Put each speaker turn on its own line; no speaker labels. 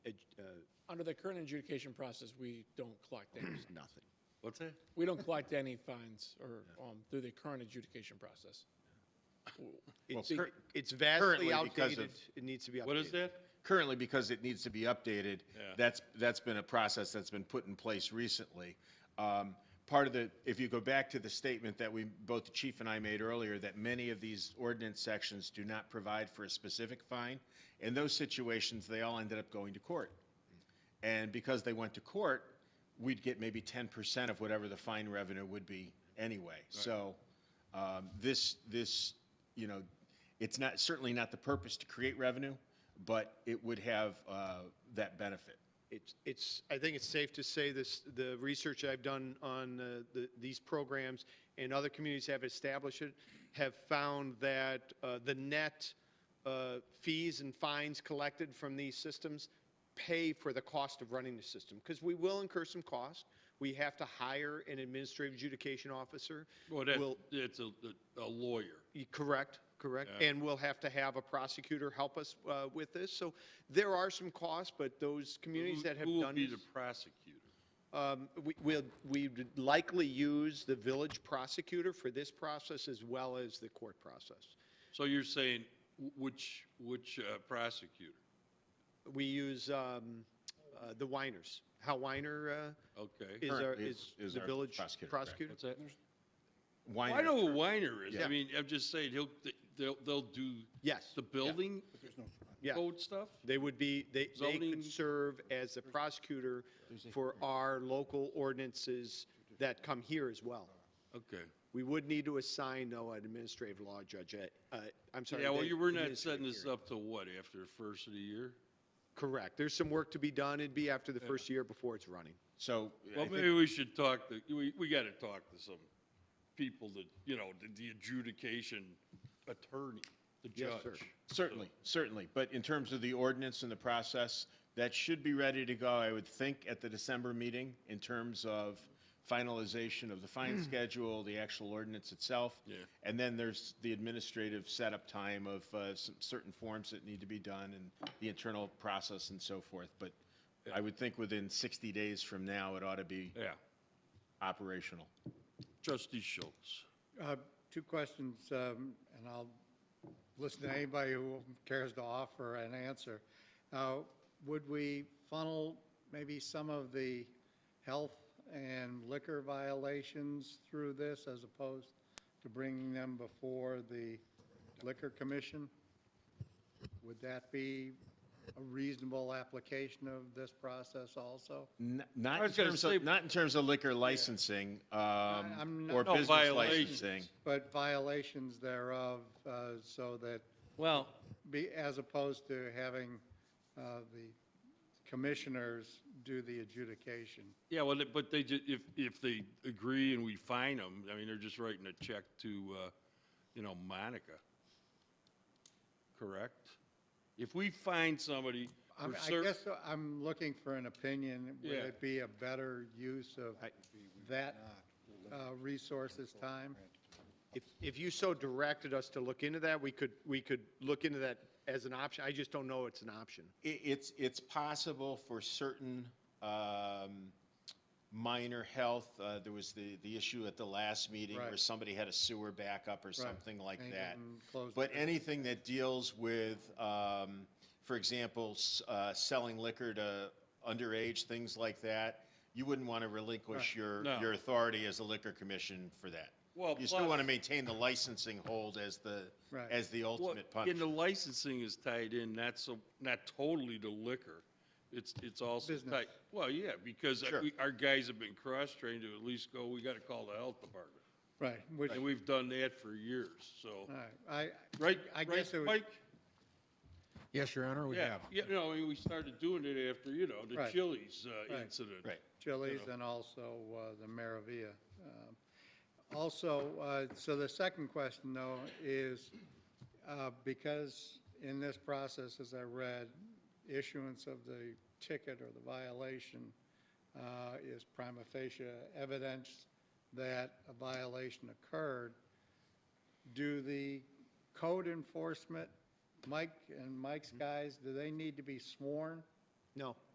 uh,
Under the current adjudication process, we don't collect any,
Nothing.
What's that?
we don't collect any fines or, um, through the current adjudication process.
It's,
see,
cur- it's vastly
currently because of-
outdated. It needs to be updated.
What is that?
Currently, because it needs to be updated,
Yeah.
that's, that's been a process that's been put in place recently. Um, Part of the, if you go back to the statement that we, both the chief and I made earlier, that many of these ordinance sections do not provide for a specific fine, in those situations, they all ended up going to court. And because they went to court, we'd get maybe ten percent of whatever the fine revenue would be anyway. So, um, this, this, you know, it's not, certainly not the purpose to create revenue, but it would have, uh, that benefit.
It's, it's, I think it's safe to say this, the research I've done on uh, the, these programs and other communities have established it, have found that uh, the net uh, fees and fines collected from these systems pay for the cost of running the system. Because we will incur some cost. We have to hire an administrative adjudication officer.
Well, that,
We'll-
it's a, a lawyer.
Y- Correct, correct. And we'll have to have a prosecutor help us uh, with this. So there are some costs, but those communities
Who-
that have
Who will
done
be
this,
the prosecutor?
um, we- we'll, we would likely use the village prosecutor for this process as well as the court process.
So you're saying wh- which, which uh, prosecutor?
We use um, uh, the Winers. Hal Weiner uh,
Okay.
is our,
Currently
is
is
the
our
village
prosecutor, correct.
prosecutor.
What's that?
Why
Well, I know who Weiner is.
Yeah.
I mean, I'm just saying, he'll, they'll, they'll do.
Yes.
The building
Yeah.
code stuff?
They would be, they, they
Zoning-
could serve as the prosecutor for our local ordinances that come here as well.
Okay.
We would need to assign, though, an administrative law judge. at- uh, I'm sorry.
Yeah, well,
the
you were not
administrative
setting this
hearing.
up to what, after the first of the year?
Correct. There's some work to be done. It'd be after the first year before it's running.
So, I
Well,
think-
maybe we should talk, to- we, we got to talk to some people that, you know, the- the adjudication attorney, the
Yes, sir.
judge.
certainly, certainly, but in terms of the ordinance and the process, that should be ready to go, I would think, at the December meeting in terms of finalization of the fine schedule, the actual ordinance itself.
Mm. Yeah.
And then there's the administrative setup time of uh, some certain forms that need to be done and the internal process and so forth. But I would think within 60 days from now, it ought to be
Yeah.
operational.
Trustee Schultz.
Uh, Two questions, um, and I'll listen to anybody who cares to offer an answer. Uh, Would we funnel maybe some of the health and liquor violations through this as opposed to bringing them before the liquor commission? Would that be a reasonable application of this process also?
N-
I
Not in
was gonna
terms
say-
of, not in terms of liquor licensing um,
I'm
or
not-
No,
business
violations.
licensing.
But violations thereof, uh, so that
Well,
be, as opposed to having uh, the commissioners do the adjudication.
Yeah, well, but they, ju- if, if they agree and we fine them, I mean, they're just writing a check to, uh, you know, Monica. Correct? If we find somebody
I'm-
for
I
cer-
guess uh, I'm looking for an opinion, would
Yeah.
it be a better use of that uh, resource this time?
If, if you so directed us to look into that, we could, we could look into that as an option. I just don't know it's an option.
I- It's, it's possible for certain um, minor health, uh, there was the, the issue at the last meeting where
Right.
somebody had a sewer backup or something like
And
that.
even closed
But
business.
anything that deals with, um, for example, s- uh, selling liquor to underage, things like that, you wouldn't want to relinquish your,
No.
your authority as a liquor commission for that.
Well,
You still
plus-
want to maintain the licensing hold as the,
Right.
as the
Well,
ultimate
And the
punishment.
licensing is tied in, not so, not totally to liquor. It's, it's also
Business.
tied, well, yeah, because
Sure.
we- our guys have been cross-trained to at least go, we got to call the health department.
Right, which,
And
all
we've done that for years, so.
right, I,
Right,
Uh, I
right,
guess it would,
Mike?
Yes, Your Honor, we
Yeah,
have.
yeah, you know, we started doing it after, you know, the
Right.
Chili's uh,
Right.
incident.
Right.
Chili's and also uh, the Maravilla. Um, Also, uh, so the second question, though, is uh, because in this process, as I read, issuance of the ticket or the violation uh, is prima facie evidence that a violation occurred, do the code enforcement, Mike and Mike's guys, do they need to be sworn?
No.